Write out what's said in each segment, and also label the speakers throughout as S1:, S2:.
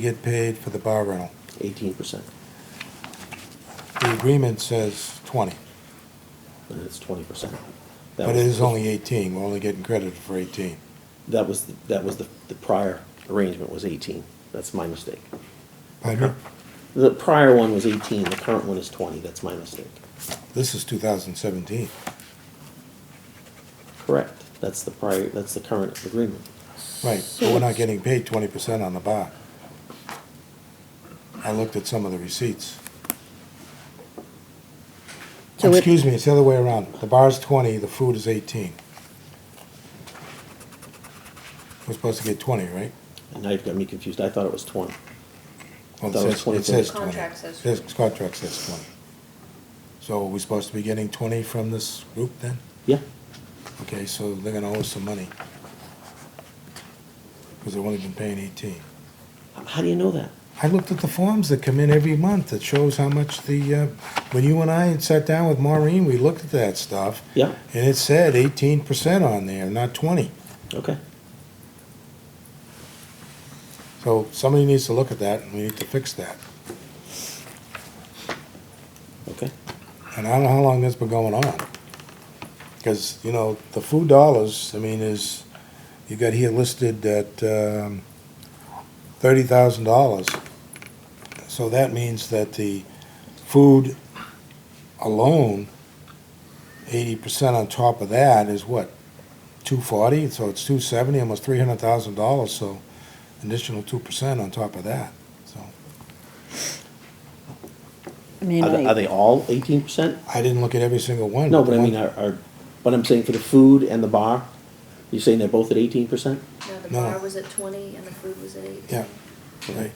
S1: get paid for the bar rental.
S2: eighteen percent,
S1: The agreement says 20,
S2: but it's twenty percent.
S1: but it is only 18, we're only getting credited for 18.
S2: That was, the- that was the, the prior arrangement was eighteen, that's my mistake.
S1: Pardon me?
S2: The prior one was eighteen, the current one is twenty, that's my mistake.
S1: This is 2017,
S2: Correct, that's the prior, that's the current agreement.
S1: right, but we're not getting paid 20% on the bar. I looked at some of the receipts.
S3: So it-
S1: Excuse me, it's the other way around. The bar's 20, the food is 18. We're supposed to get 20, right?
S2: And now you've got me confused, I thought it was twenty.
S1: Well,
S2: That was
S1: it says,
S2: 20.
S1: it says
S4: The
S1: twenty.
S4: contract says
S1: This contract says twenty. So are we supposed to be getting twenty from this group then?
S2: Yeah,
S1: Okay, so they're gonna owe us some money. Because they've only been paying eighteen.
S2: H- how do you know that?
S1: I looked at the forms that come in every month that shows how much the, uh, when you and I had sat down with Maureen, we looked at that stuff.
S2: Yeah,
S1: And it said eighteen percent on there, not twenty.
S2: okay,
S1: So somebody needs to look at that and we need to fix that.
S2: okay.
S1: And I don't know how long that's been going on. Because, you know, the food dollars, I mean, is, you got here listed at um, $30,000. So that means that the food alone, 80% on top of that is what? 240, so it's 270, almost $300,000, so additional 2% on top of that, so.
S3: I mean,
S2: Are they, are
S3: I,
S2: they all eighteen percent?
S1: I didn't look at every single one.
S2: No, but I
S1: One-
S2: mean, are, are, but I'm saying for the food and the bar, you're saying they're both at eighteen percent?
S4: No, the
S1: No.
S4: bar was at twenty and the food was at eight.
S1: Yeah, right.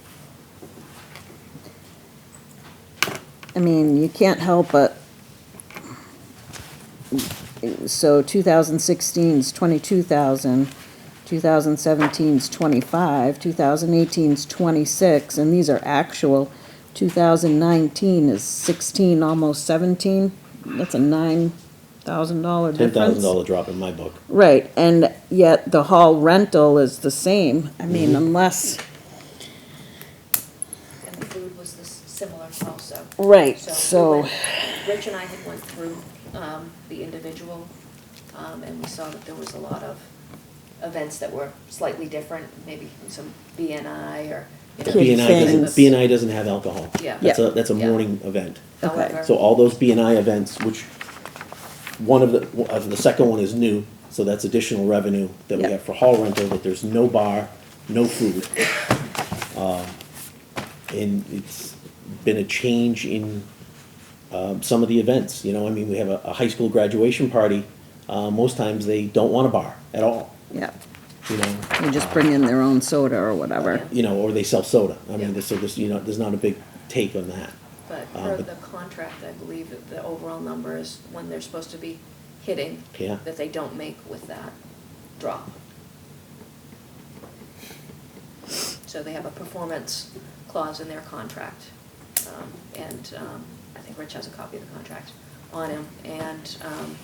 S3: I mean, you can't help but, so 2016's 22,000, 2017's 25, 2018's 26, and these are actual. 2019 is 16, almost 17. That's a $9,000
S2: Ten
S3: difference.
S2: thousand dollar drop in my book.
S3: Right, and yet the hall rental is the same. I
S2: Mm-hmm.
S3: mean, unless.
S4: And the food was this similar also.
S3: Right,
S4: we
S3: so-
S4: went- Rich and I had went through, um, the individual, um, and we saw that there was a lot of events that were slightly different, maybe some BNI or, you know.
S3: Kid
S2: B and I doesn't,
S3: things.
S2: B and I doesn't have alcohol.
S4: Yeah.
S2: That's
S3: Yeah.
S2: a, that's a
S4: Yeah.
S2: morning event.
S4: However,
S2: So all those B and I events, which, one of the, of the second one is new, so that's additional revenue that we
S3: Yeah.
S2: have for hall rental, but there's no bar, no food. Um, And it's been a change in, um, some of the events, you know, I mean, we have a, a high school graduation party, uh, most times they don't want a bar at all,
S3: Yeah,
S2: you know?
S3: they just bring in their own soda or whatever.
S2: You know, or they sell soda, I mean,
S4: Yeah.
S2: so there's, you know, there's not a big take on that.
S4: But
S2: Uh,
S4: per
S2: but-
S4: the contract, I believe that the overall number is when they're supposed to be hitting.
S2: Yeah.
S4: That they don't make with that drop. So they have a performance clause in their contract. um, And um, I think Rich has a copy of the contract on him. And um,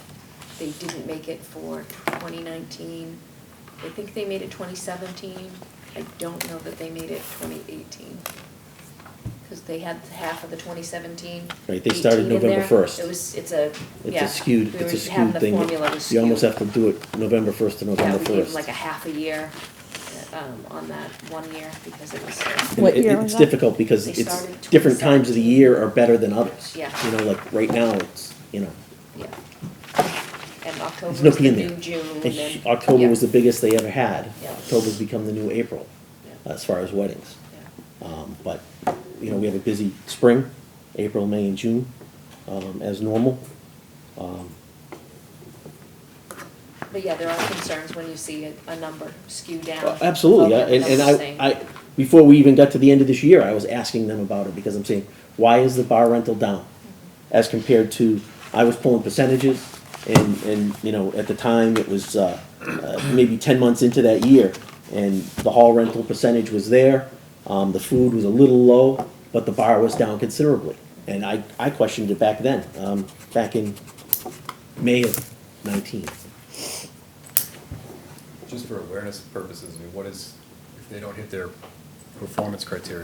S4: they didn't make it for 2019. I think they made it 2017. I don't know that they made it 2018. Because they had half of the 2017.
S2: Right, they started
S4: 18 in
S2: November
S4: there.
S2: 1st.
S4: It was, it's a,
S2: It's
S4: yeah.
S2: a skewed,
S4: we
S2: it's
S4: were
S2: a skewed
S4: having
S2: thing.
S4: The formula was skewed.
S2: You almost have to do it November first to
S4: Yeah,
S2: November
S4: we gave them like
S2: first.
S4: a half a year um, on that one year because it was, uh,
S3: What year was
S2: It's
S3: that?
S2: difficult because
S4: They
S2: it's,
S4: started
S2: different times of the
S4: 27.
S2: year are better than others.
S4: Yeah.
S2: You know, like right now, it's, you know,
S4: yeah. And October
S2: there's no
S4: was
S2: P
S4: the
S2: in
S4: new
S2: there.
S4: June and
S2: And
S4: then.
S2: October
S4: yeah,
S2: was the biggest they ever had.
S4: Yeah.
S2: October's become the new April,
S4: yeah,
S2: as far as weddings.
S4: yeah.
S2: Um, but, you know, we have a busy spring, April, May, and June, um, as normal. Um,
S4: But yeah, there are concerns when you see a, a number skew down.
S2: Well, Oh, Uh, Absolutely, I-
S4: above
S2: and, and
S4: another thing.
S2: I, I, before we even got to the end of this year, I was asking them about it, because I'm saying, why is the bar rental down? As compared to, I was pulling percentages, and, and, you know, at the time, it was, uh, uh, maybe ten months into that year, and the hall rental percentage was there, um, the food was a little low, but the bar was down considerably. And I, I questioned it back then, um, back in May of nineteen.
S5: Just for awareness purposes, I mean, what is, if they don't hit their performance criteria.